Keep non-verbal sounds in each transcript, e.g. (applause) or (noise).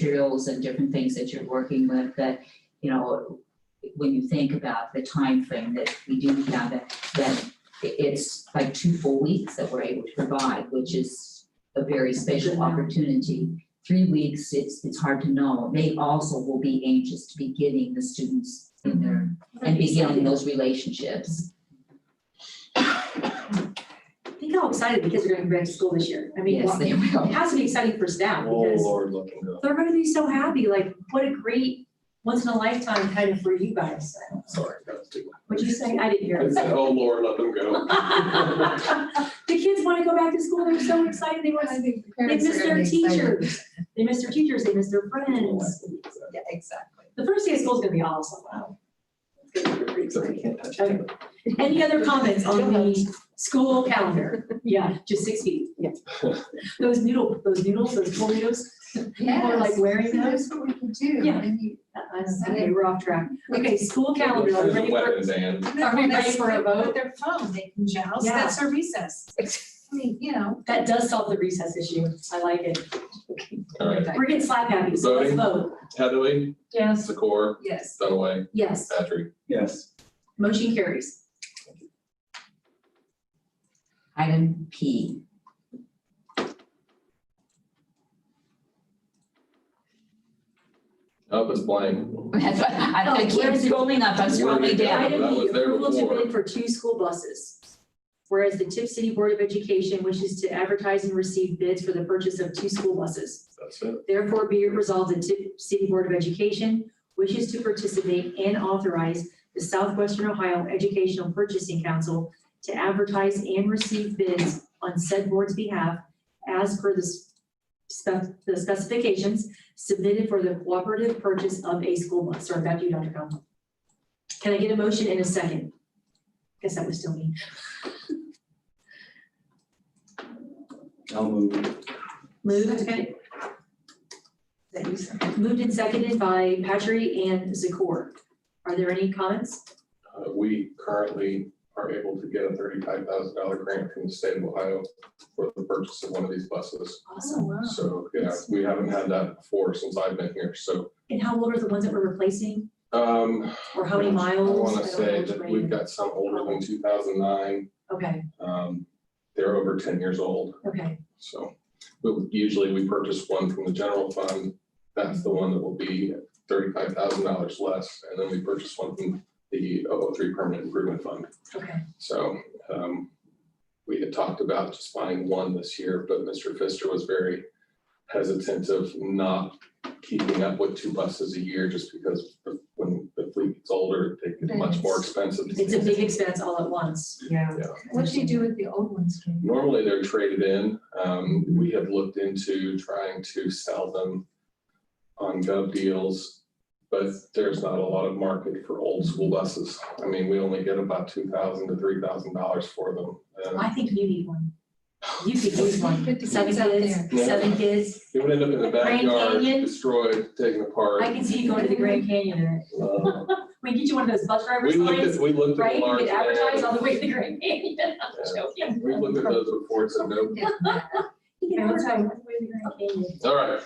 materials and different things that you're working with that, you know, when you think about the time frame that we do have, that, that i- it's like two full weeks that we're able to provide, which is a very special opportunity. Three weeks, it's, it's hard to know. They also will be anxious to be getting the students in there Mm-hmm. and beginning those relationships. Think how excited the kids are gonna be back to school this year. I mean, Yes, wow, they it will. has to be exciting for staff Oh, because Lord, look and go. they're gonna be so happy, like, what a great once in a lifetime kind of for you guys. Sorry, that's too. What'd you say? I didn't hear. I said, oh, Lord, let them go. (laughs) The kids wanna go back to school. They're so excited. They want, I to. think the they parents miss are their gonna be excited. teachers. They miss their teachers. They miss their friends. Yeah, exactly. The first day of school is gonna be awesome. Wow. It's gonna be pretty Except we exciting. can't touch it. Any other comments on the school calendar? Yeah, (laughs) just six feet. Yeah. Those noodle, those noodles, those pool (laughs) noodles, people are like Yes, wearing so those. that's what we can do. Yeah. And you- Uh, Okay, we're off track. Okay, school calendar, are we There's a ready for, weapon, Dan. No, we that's ready for a what- vote? Their phone, they can joust, Yeah. that's our recess. I mean, you know. that does solve the recess issue. I like it. Okay. All right, We're getting slap happy, so let's vote. Heatherly, Yes. Secor, Yes. Dunaway, Yes, Patrick. Yes. motion carries. Item P. (laughs) Up is blank. I Oh, keep scrolling up, I'm scrolling down. Yeah, that Item was B, there approval to before. bid for two school buses. Whereas the Tip City Board of Education wishes to advertise and receive bids for the purchase of two school buses. That's it. Therefore, be it resolved that Tip City Board of Education wishes to participate and authorize the Southwestern Ohio Educational Purchasing Council to advertise and receive bids on said board's behalf as per the spec- the specifications submitted for the cooperative purchase of a school bus. Sorry, back to you, Dr. Conlon. Can I get a motion in a second? Guess that was still me. I'll move. Moved, okay. That you said. Moved and seconded by Patry and Zakor. Are there any comments? Uh, we currently are able to get a thirty-five thousand dollar grant from the state of Ohio for the purchase of one of these buses. Oh, wow. So, yeah, we haven't had that before since I've been here, so, And how old are the ones that we're replacing, um, or how many I miles? wanna don't know say which that way. we've got some older than two thousand nine. Okay, Um, they're over ten years old. okay, So we- usually we purchase one from the general fund. That's the one that will be thirty-five thousand dollars less. And then we purchase one from the 003 Permanent Improvement Fund. okay. So um, we had talked about just buying one this year, but Mr. Pfister was very hesitant of not keeping up with two buses a year just because the- when the fleet gets older, they get much more expensive. It's a big expense all at once. Yeah. Yeah. What do you do with the old ones? Kim? Normally they're traded in. Um, we have looked into trying to sell them on gov deals, but there's not a lot of market for old school buses. I mean, we only get about two thousand to three thousand dollars for them. And I think you need one. You could use one. Fifty Seven kids out there. kids, seven kids. It would end up in the Grand backyard, Canyon? destroyed, taken apart. I can see you going to the Grand Canyon in it. Uh, (laughs) We get you one of those bus driver We looked at, signs, we looked at right? the You large. could advertise all vans. the way to the Grand Canyon. (laughs) I'm joking. We looked at those reports and no, You can advertise all the way to the Grand Canyon. all right,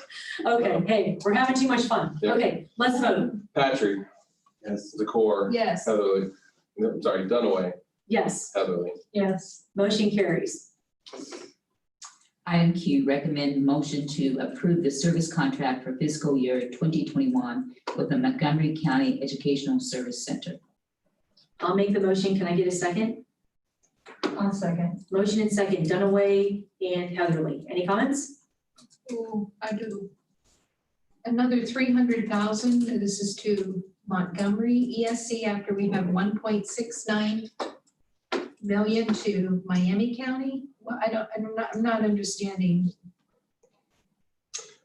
Okay, hey, we're having too much fun. Um, Yeah. Okay, let's vote. Patrick, Yes. the core, (laughs) Yes. Heatherly, no, sorry, Dunaway, Yes, Heatherly. Yes. motion carries. Item Q, recommend motion to approve the service contract for fiscal year twenty twenty-one with the Montgomery County Educational Service Center. I'll make the motion. Can I get a second? I'll second. Motion and second, Dunaway and Heatherly. Any comments? Ooh, I do. Another three hundred thousand, this is to Montgomery ESC after we have one point six nine million to Miami County. Well, I don't, I'm not, I'm not understanding.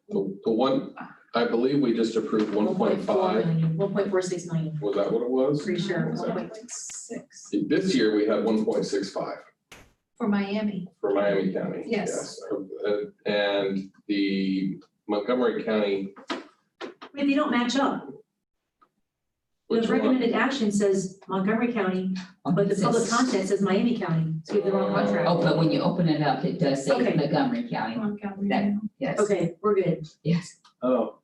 The, the one, I believe we just approved one point five, One point four six million, was that what it was? pretty sure. Exactly. 1.6 This year, we had one point six five For Miami, for Miami County. Yes. Uh, And the Montgomery County, Wait, they don't match up. The which one? recommended action says Montgomery County but the public content says Miami County, so we have the wrong contract. Oh, but when you open it up, it does say Okay. Montgomery County, Montgomery. That- yes, Okay, we're good. yes. Oh,